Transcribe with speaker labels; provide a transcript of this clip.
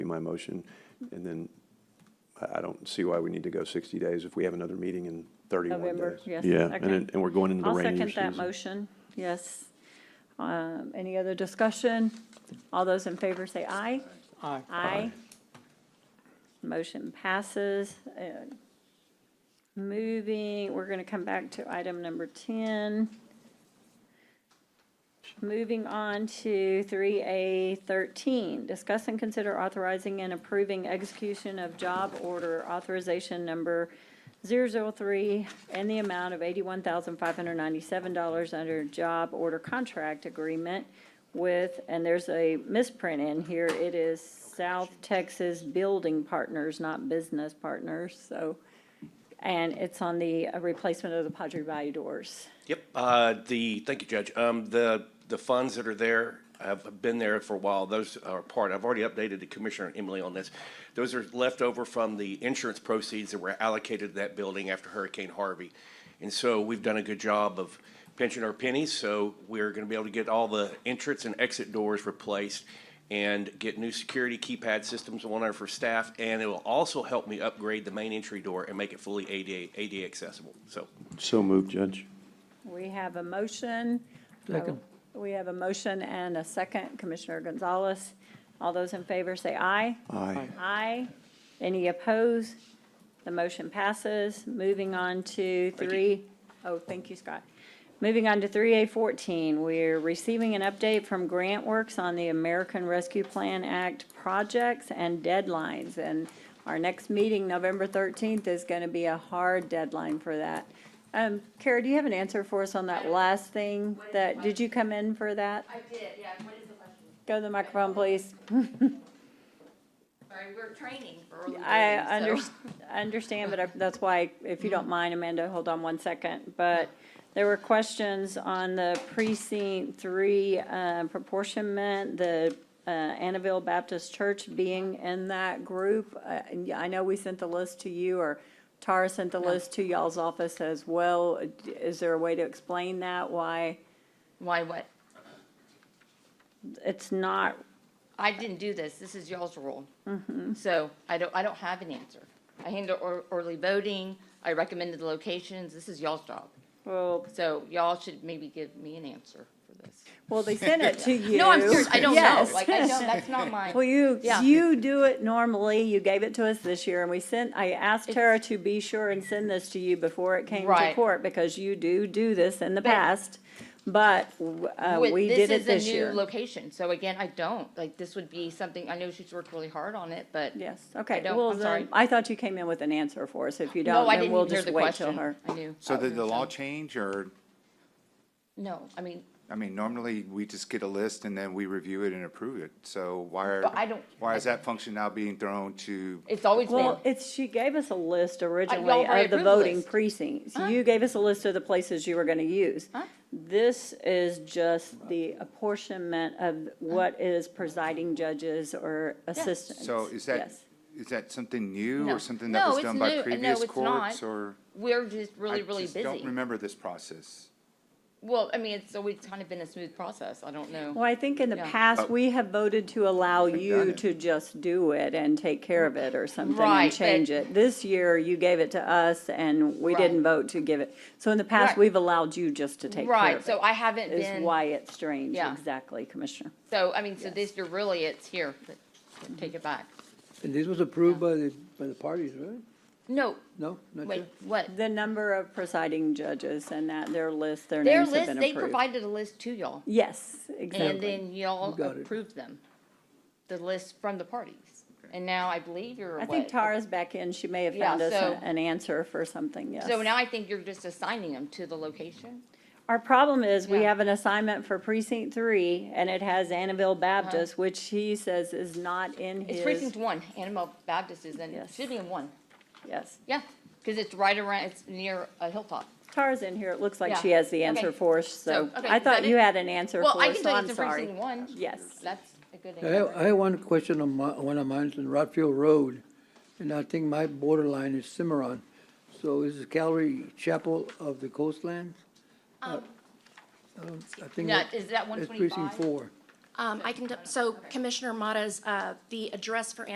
Speaker 1: my motion. And then I, I don't see why we need to go 60 days if we have another meeting in 31 days.
Speaker 2: November, yes,
Speaker 1: Yeah, and,
Speaker 2: okay.
Speaker 1: it- and we're going into the
Speaker 2: I'll
Speaker 1: rainy season.
Speaker 2: second that motion, yes. Um, Any other discussion? All those in favor say aye.
Speaker 3: Aye.
Speaker 2: Aye. Motion passes. And Moving, we're going to come back to item number 10. Moving on to 3A13, discuss and consider authorizing and approving execution of job order authorization number 003 and the amount of $81,597 under job order contract agreement with, and there's a misprint in here, it is South Texas Building Partners, not Business Partners, so, and it's on the uh, replacement of the Padre Valle doors.
Speaker 4: Yep, uh, the, thank you, Judge. Um, The, the funds that are there have been there for a while. Those are part, I've already updated the Commissioner and Emily on this. Those are left over from the insurance proceeds that were allocated to that building after Hurricane Harvey. And so we've done a good job of pinching our pennies, so we're going to be able to get all the entrance and exit doors replaced and get new security keypad systems on there for staff. And it will also help me upgrade the main entry door and make it fully ADA, ADA accessible. So
Speaker 1: So moved, Judge.
Speaker 2: We have a motion.
Speaker 3: Second.
Speaker 2: We have a motion and a second, Commissioner Gonzalez. All those in favor say aye.
Speaker 1: Aye.
Speaker 2: Aye. Any opposed? The motion passes. Moving on to
Speaker 4: Thank you.
Speaker 2: three, oh, thank you, Scott. Moving on to three A fourteen, we're receiving an update from Grant Works on the American Rescue Plan Act projects and deadlines. And our next meeting, November thirteenth, is gonna be a hard deadline for that. Um, Kara, do you have an answer for us on that last thing? That, did you come in for that?
Speaker 5: I did, yeah, what is the question?
Speaker 2: Go to the microphone, please.
Speaker 5: Sorry, we're training for early voting, so. Mm-hmm.
Speaker 2: I under, I understand, but I- that's why, if you don't mind, Amanda, hold on one second. But there were questions on the precinct three uh, proportionment, the uh, Annabelle Baptist Church being in that group. Uh, and yeah, I know we sent the list to you, or Tara sent the list to y'all's office as well. Is there a way to explain that, why
Speaker 5: Why what?
Speaker 2: it's not,
Speaker 5: I didn't do this, this is y'all's rule.
Speaker 2: Mm-hmm.
Speaker 5: So I don't, I don't have an answer. I handle ear- early voting, I recommended the locations, this is y'all's job.
Speaker 2: well,
Speaker 5: So y'all should maybe give me an answer for this.
Speaker 2: well, they sent it to you.
Speaker 5: No, I'm serious, I don't know,
Speaker 2: Yes.
Speaker 5: like, I don't, that's not mine.
Speaker 2: Well, you,
Speaker 5: Yeah.
Speaker 2: you do it normally, you gave it to us this year, and we sent, I asked Tara to be sure and send this to you before it came to
Speaker 5: Right.
Speaker 2: court, because you do do this in the past, but, uh,
Speaker 5: With-
Speaker 2: we did it
Speaker 5: is a
Speaker 2: this
Speaker 5: new
Speaker 2: year.
Speaker 5: Location, so again, I don't, like, this would be something, I know she's worked really hard on it, but.
Speaker 2: Yes, okay,
Speaker 5: don't-
Speaker 2: well,
Speaker 5: I'm sorry.
Speaker 2: then, I thought you came in with an answer for us, if you
Speaker 5: No,
Speaker 2: don't,
Speaker 5: I
Speaker 2: then
Speaker 5: didn't
Speaker 2: we'll
Speaker 5: even hear
Speaker 2: just
Speaker 5: the
Speaker 2: wait till
Speaker 5: question.
Speaker 2: her.
Speaker 5: I knew.
Speaker 6: So
Speaker 5: I was
Speaker 6: did the
Speaker 5: gonna tell
Speaker 6: law
Speaker 5: you.
Speaker 6: change, or,
Speaker 5: No, I mean,
Speaker 6: I mean, normally we just get a list and then we review it and approve it, so why
Speaker 5: But I don't-
Speaker 6: are, why is that function now being thrown to?
Speaker 5: it's always been.
Speaker 2: Well, it's, she gave us a
Speaker 5: Uh,
Speaker 2: list originally
Speaker 5: already
Speaker 2: of the
Speaker 5: approved
Speaker 2: voting
Speaker 5: list.
Speaker 2: precincts. You gave us a list of the places you were gonna use. This is just the apportionment of what is presiding judges or assistants.
Speaker 6: So is that,
Speaker 2: Yes.
Speaker 6: is that something new
Speaker 5: No.
Speaker 6: or something that
Speaker 5: No,
Speaker 6: was
Speaker 5: it's
Speaker 6: done
Speaker 5: new.
Speaker 6: by
Speaker 5: No,
Speaker 6: previous
Speaker 5: it's not.
Speaker 6: courts or?
Speaker 5: We're just really,
Speaker 6: I
Speaker 5: really
Speaker 6: just Don't
Speaker 5: busy.
Speaker 6: remember this process.
Speaker 5: Well, I mean, it's always kind of been a smooth process. I don't know.
Speaker 2: Well, I think in the
Speaker 5: Yeah.
Speaker 2: past, we have voted to allow
Speaker 6: Uh, done
Speaker 2: you
Speaker 6: it.
Speaker 2: to just do it and take care of it or something
Speaker 5: Right,
Speaker 2: and
Speaker 5: but-
Speaker 2: change it. This year, you gave it to us and we
Speaker 5: Right.
Speaker 2: didn't vote to give it. So in the past,
Speaker 5: Right.
Speaker 2: we've allowed you just to take care
Speaker 5: Right,
Speaker 2: of it,
Speaker 5: so I haven't
Speaker 2: is
Speaker 5: been,
Speaker 2: why it's strange,
Speaker 5: Yeah.
Speaker 2: exactly, Commissioner.
Speaker 5: so, I mean, so this year really it's here, but take it back.
Speaker 3: And this was approved by the, by the parties, right?
Speaker 5: No,
Speaker 3: No, not
Speaker 5: wait,
Speaker 3: yet?
Speaker 5: what?
Speaker 2: The number of presiding judges and that, their list, their
Speaker 5: Their
Speaker 2: names have
Speaker 5: list,
Speaker 2: been
Speaker 5: they
Speaker 2: approved.
Speaker 5: provided a list to y'all
Speaker 2: Yes,
Speaker 5: and
Speaker 2: exactly.
Speaker 5: then y'all
Speaker 3: You got it.
Speaker 5: approved them. The list from the parties. And now I believe you're
Speaker 2: I
Speaker 5: what?
Speaker 2: think Tara's back in, she may have
Speaker 5: Yeah,
Speaker 2: found us
Speaker 5: so-
Speaker 2: a- an answer for something, yes.
Speaker 5: So now I think you're just assigning them to the location.
Speaker 2: Our problem is, we
Speaker 5: Yeah.
Speaker 2: have an assignment for precinct three, and it has Annabelle Baptist, which he says is not in
Speaker 5: Uh-huh. It's precinct
Speaker 2: his,
Speaker 5: one, Annabelle Baptist is in,
Speaker 2: Yes.
Speaker 5: should be in one.
Speaker 2: yes.
Speaker 5: Yeah, because it's right around, it's near a hilltop.
Speaker 2: Tara's in here, it looks like
Speaker 5: Yeah.
Speaker 2: she has the answer
Speaker 5: Okay.
Speaker 2: for us, so
Speaker 5: So, okay,
Speaker 2: I
Speaker 5: is
Speaker 2: thought
Speaker 5: that
Speaker 2: you
Speaker 5: it?
Speaker 2: had an answer
Speaker 5: Well,
Speaker 2: for
Speaker 5: I
Speaker 2: us,
Speaker 5: can
Speaker 2: so
Speaker 5: tell you
Speaker 2: I'm
Speaker 5: it's in
Speaker 2: sorry.
Speaker 5: precinct one.
Speaker 2: Yes,
Speaker 5: That's a good
Speaker 3: I
Speaker 5: answer.
Speaker 3: have, I have one question on my, one of mine in Rodfield Road, and I think my borderline is Cimarron. So is the Calvary Chapel of the Coastlands? Uh, I think
Speaker 5: Now,
Speaker 3: that-
Speaker 5: Um, is that one
Speaker 3: It's precinct
Speaker 5: twenty-five?
Speaker 3: four.
Speaker 7: Um, I can, so Commissioner Mottas, uh, the address for